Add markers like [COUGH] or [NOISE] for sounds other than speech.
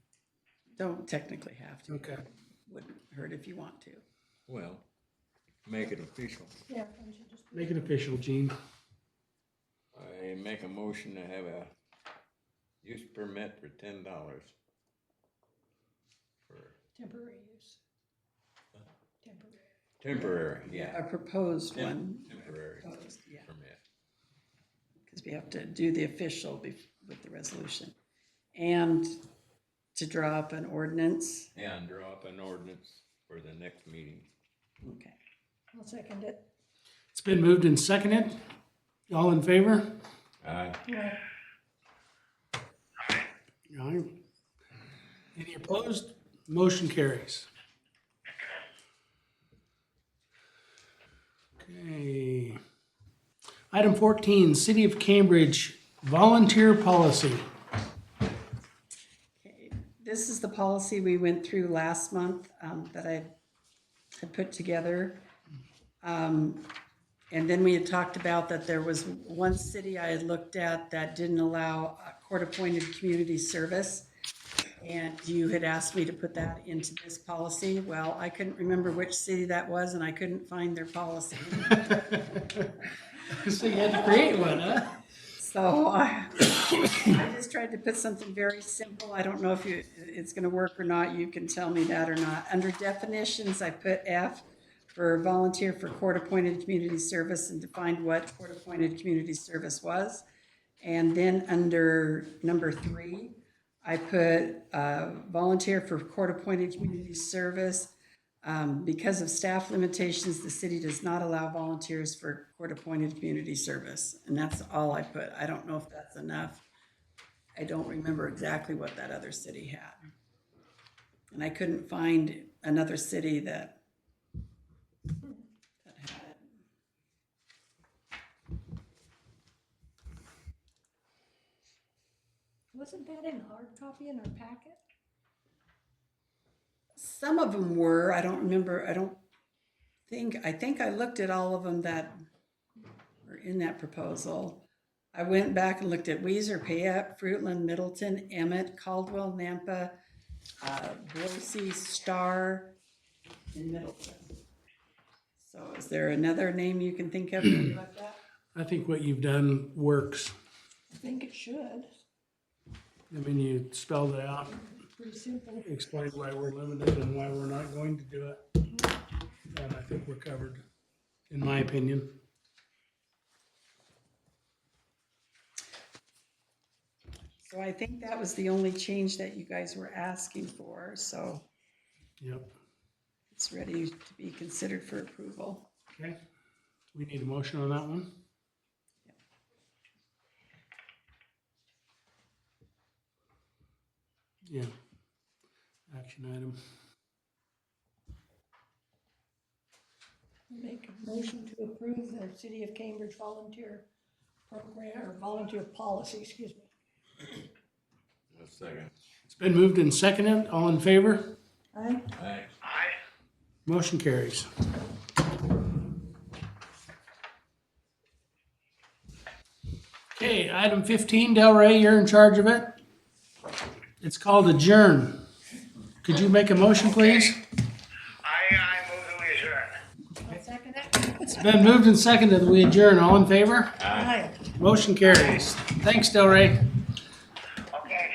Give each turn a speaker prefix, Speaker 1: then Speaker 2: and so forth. Speaker 1: don't technically have to.
Speaker 2: Okay.
Speaker 1: Wouldn't hurt if you want to.
Speaker 3: Well, make it official.
Speaker 4: Yeah, and she just,
Speaker 2: Make it official, Gene.
Speaker 3: I make a motion to have a use permit for ten dollars. For
Speaker 4: temporary use. Temporary.
Speaker 3: temporary,
Speaker 1: A
Speaker 3: yeah,
Speaker 1: proposed one,
Speaker 3: temporary
Speaker 1: proposed, yeah,
Speaker 3: permit.
Speaker 1: because we have to do the official bef- with the resolution. And to draw up an ordinance,
Speaker 3: And draw up an ordinance for the next meeting.
Speaker 1: okay.
Speaker 4: I'll second it.
Speaker 2: It's been moved and seconded. All in favor?
Speaker 3: Aye.
Speaker 4: Yeah,
Speaker 2: Aye. Any opposed? Motion carries. Okay. Item fourteen, City of Cambridge Volunteer Policy. [LAUGHS]
Speaker 1: Okay, This is the policy we went through last month um, that I had put together. Um, And then we had talked about that there was one city I had looked at that didn't allow uh, court-appointed community service. And you had asked me to put that into this policy. Well, I couldn't remember which city that was and I couldn't find their policy.
Speaker 2: So you had to create one, huh?
Speaker 1: So I, I just tried to put something very simple. I don't know if you, it's gonna work or not. You can tell me that or not. Under definitions, I put F for volunteer for court-appointed community service and defined what court-appointed community service was. And then under number three, I put, uh, volunteer for court-appointed community service um, because of staff limitations, the city does not allow volunteers for court-appointed community service. And that's all I put. I don't know if that's enough. I don't remember exactly what that other city had. And I couldn't find another city that that had it.
Speaker 4: wasn't that in hard copy in our packet?
Speaker 1: Some of them were, I don't remember, I don't think, I think I looked at all of them that were in that proposal. I went back and looked at Weezer, Payette, Fruitland, Middleton, Emmett, Caldwell, Nampa, uh, Boise, Star, and Middleton. So is there another name you can think of? that you looked at?
Speaker 2: I think what you've done works.
Speaker 4: I think it should.
Speaker 2: I mean, you spelled it out,
Speaker 4: Pretty simple.
Speaker 2: explain why we're limited and why we're not going to do it. And I think we're covered, in my opinion.
Speaker 1: So I think that was the only change that you guys were asking for, so
Speaker 2: Yep.
Speaker 1: it's ready to be considered for approval.
Speaker 2: Okay. We need a motion on that one? Yeah. Action item.
Speaker 4: Make a motion to approve the City of Cambridge volunteer program, or volunteer policy, excuse me.
Speaker 3: A second.
Speaker 2: It's been moved and seconded. All in favor?
Speaker 4: Aye.
Speaker 3: Aye.
Speaker 2: Motion carries. Okay, item fifteen, Del Rey, you're in charge of it. It's called adjourn. Could you make a motion, please?
Speaker 5: I, I move that we adjourn.
Speaker 4: I'll second it.
Speaker 2: It's been moved and seconded. We adjourn. All in favor?
Speaker 4: Aye.
Speaker 2: Motion carries. Thanks, Del Rey.